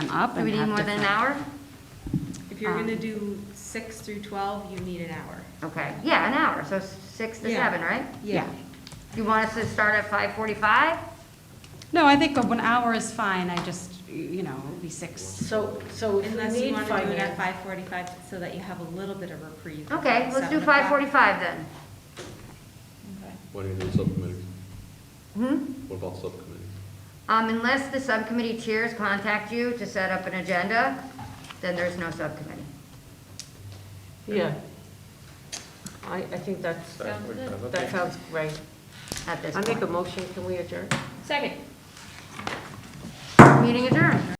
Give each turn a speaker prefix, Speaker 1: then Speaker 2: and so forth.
Speaker 1: I'm up
Speaker 2: Do
Speaker 1: and
Speaker 2: we need
Speaker 1: have
Speaker 2: more than an
Speaker 1: different-
Speaker 2: hour?
Speaker 3: If you're
Speaker 2: Um,
Speaker 3: gonna do six through twelve, you need an hour.
Speaker 2: Okay, yeah, an hour, so six to
Speaker 3: Yeah.
Speaker 2: seven, right?
Speaker 1: Yeah.
Speaker 2: You want us to start at five forty-five?
Speaker 1: No, I think of an hour is fine, I just, you know, it'll be six.
Speaker 4: So, so if
Speaker 3: Unless
Speaker 4: we
Speaker 3: you
Speaker 4: need
Speaker 3: wanna do it at
Speaker 4: finance,
Speaker 3: five forty-five, so that you have a little bit of reprieve.
Speaker 2: Okay, let's
Speaker 3: Seven
Speaker 2: do
Speaker 3: o'clock.
Speaker 2: five forty-five then.
Speaker 5: What do you do with subcommittees?
Speaker 2: Hmm?
Speaker 5: What about subcommittees?
Speaker 2: Um, unless the subcommittee chairs contact you to set up an agenda, then there's no subcommittee.
Speaker 4: yeah. I, I think that's, that sounds right.
Speaker 2: at this
Speaker 4: I make a
Speaker 2: point.
Speaker 4: motion, can we adjourn?
Speaker 2: Meeting adjourned.